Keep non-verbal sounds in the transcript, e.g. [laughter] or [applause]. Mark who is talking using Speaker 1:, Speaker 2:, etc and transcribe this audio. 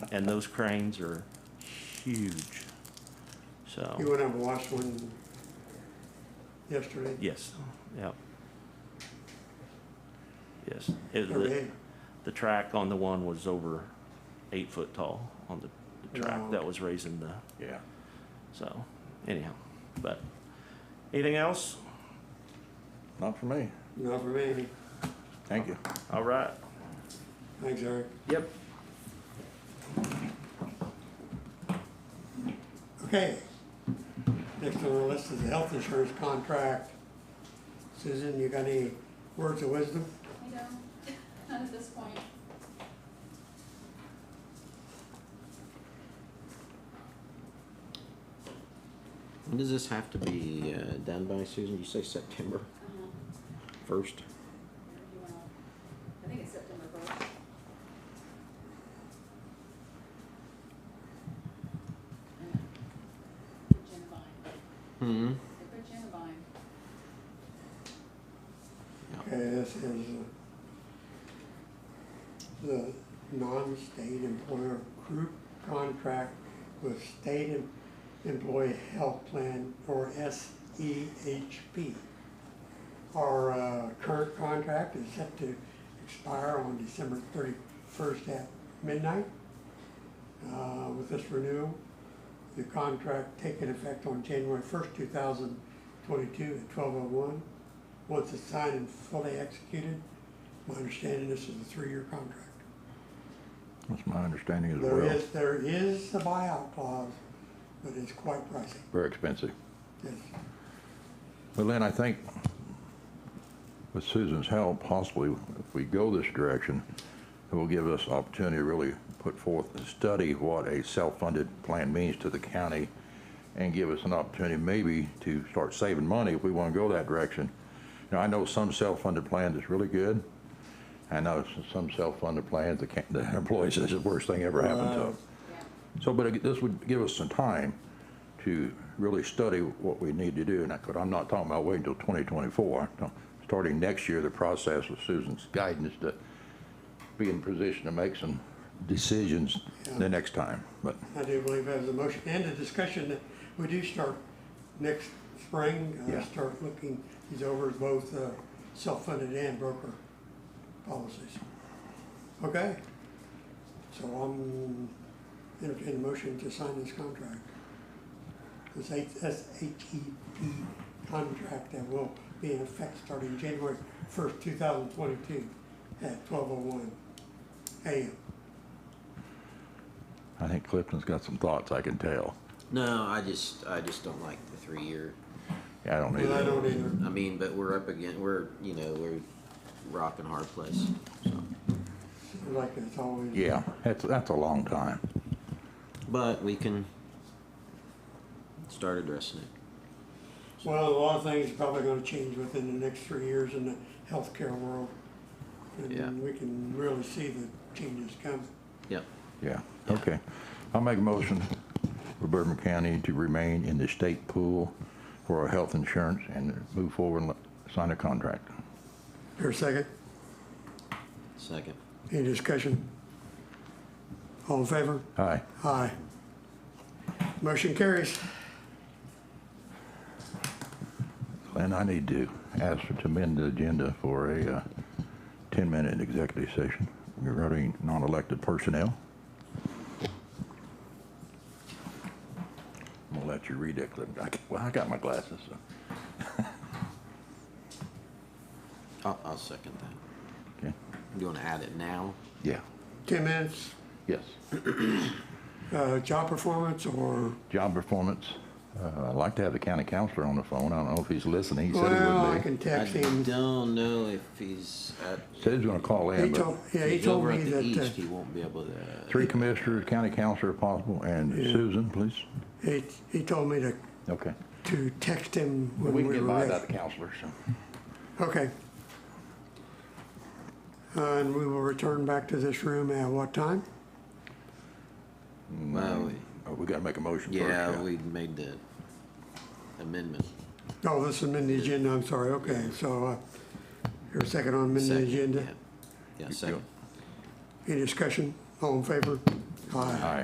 Speaker 1: and those cranes are huge.
Speaker 2: You
Speaker 1: So,
Speaker 2: went and watched one yesterday?
Speaker 1: yes, yep. Yes, it,
Speaker 2: Or
Speaker 1: the,
Speaker 2: day?
Speaker 1: the track on the one was over eight foot tall on the, the track
Speaker 2: Wow.
Speaker 1: that was raising the,
Speaker 2: Yeah.
Speaker 1: so, anyhow, but, anything else?
Speaker 3: Not for me.
Speaker 2: Not for me.
Speaker 3: Thank you.
Speaker 1: All right.
Speaker 2: Thanks, Eric.
Speaker 1: Yep.
Speaker 2: Okay. Next on our list is the health insurance contract. Susan, you got any words of wisdom?
Speaker 4: You know, [laughs] not at this point.
Speaker 5: When does this have to be uh, done by, Susan? You say September
Speaker 4: Um,
Speaker 5: first?
Speaker 4: if you wanna- I think it's September first. Genevine,
Speaker 5: Hmm.
Speaker 4: Uh, they put Genevine,
Speaker 2: Okay, this is uh, the non-state employer group contract with State Em- Employee Health Plan, or SEHP. Our uh, current contract is set to expire on December thirty-first at midnight. Uh, With this renewal, the contract taking effect on January first, two thousand twenty-two at twelve oh one. Once it's signed and fully executed, my understanding, this is a three-year contract.
Speaker 3: That's my understanding as
Speaker 2: There
Speaker 3: well.
Speaker 2: is, there is a buyout clause, but it's quite pricey,
Speaker 3: Very expensive.
Speaker 2: yes.
Speaker 3: But Lynn, I think with Susan's help, possibly if we go this direction, it will give us opportunity to really put forth and study what a self-funded plan means to the county and give us an opportunity maybe to start saving money if we want to go that direction. Now, I know some self-funded plans is really good. I know s- some self-funded plans, the ca- the [laughs] employees, this is the worst thing ever happened to them.
Speaker 4: yeah.
Speaker 3: So, but it- this would give us some time to really study what we need to do, and I could, I'm not talking about waiting until 2024. No, Starting next year, the process with Susan's guidance to be in position to make some decisions the next time, but
Speaker 2: I do believe as a motion and a discussion that we do start next spring, uh,
Speaker 3: Yeah.
Speaker 2: start looking these over as both, uh, self-funded and broker policies. Okay? So I'm entertaining a motion to sign this contract. This SHEP E contract that will be in effect starting January first, two thousand twenty-two at twelve oh one AM.
Speaker 3: I think Clifton's got some thoughts, I can tell.
Speaker 5: No, I just I just don't like the three year.
Speaker 3: Yeah, I don't need
Speaker 2: Well, I
Speaker 3: it.
Speaker 2: don't either.
Speaker 5: I mean, but we're up again. We're you know we're rock and hard place. So,
Speaker 2: Like it's always.
Speaker 3: Yeah, that's, that's a long time.
Speaker 5: but we can start addressing it.
Speaker 2: Well, a lot of things are probably gonna change within the next three years in the healthcare world.
Speaker 5: Yeah.
Speaker 2: And we can really see the changes coming.
Speaker 5: Yep.
Speaker 3: Yeah, okay. I'll make a motion for Bourbon County to remain in the state pool for our health insurance and move forward and let- sign a contract.
Speaker 2: Here a second,
Speaker 5: Second.
Speaker 2: any discussion? All in favor?
Speaker 3: Aye.
Speaker 2: Aye. Motion carries.
Speaker 3: And I need to ask for to amend the agenda for a 10-minute executive session regarding non-elected personnel. I'm gonna let you read it, Cliff. I c- Well, I got my glasses, so.
Speaker 5: I'll, I'll second that.
Speaker 3: Okay.
Speaker 5: You want to add it now?
Speaker 3: Yeah,
Speaker 2: Ten minutes,
Speaker 3: yes.
Speaker 2: uh, job performance or,
Speaker 3: Job performance. Uh, I'd like to have the county counselor on the phone. I don't know if he's listening. He said he would be.
Speaker 2: well, I can text
Speaker 5: I
Speaker 2: him.
Speaker 5: don't know if he's at.
Speaker 3: Said he's gonna call
Speaker 2: He
Speaker 3: in,
Speaker 2: told,
Speaker 3: but
Speaker 2: yeah, he
Speaker 5: he's
Speaker 2: told
Speaker 5: over
Speaker 2: me
Speaker 5: at the
Speaker 2: that,
Speaker 5: east. He
Speaker 2: uh,
Speaker 5: won't be able to.
Speaker 3: three commissioners, county counselor if possible, and Susan, please.
Speaker 2: he, he told me to,
Speaker 3: Okay.
Speaker 2: to text him when
Speaker 3: We
Speaker 2: we were
Speaker 3: can get by
Speaker 2: ready.
Speaker 3: without the counselor, so.
Speaker 2: Okay. Uh, And we will return back to this room at what time?
Speaker 5: Well, we-
Speaker 3: Oh, we gotta make a motion first.
Speaker 5: Yeah, we made the amendment.
Speaker 2: Oh, this is amended agenda, I'm sorry, okay, so, uh, your second on amended
Speaker 5: Second,
Speaker 2: agenda,
Speaker 5: yeah. Yeah, second.
Speaker 2: any discussion, all in favor?
Speaker 6: Aye.
Speaker 2: Aye.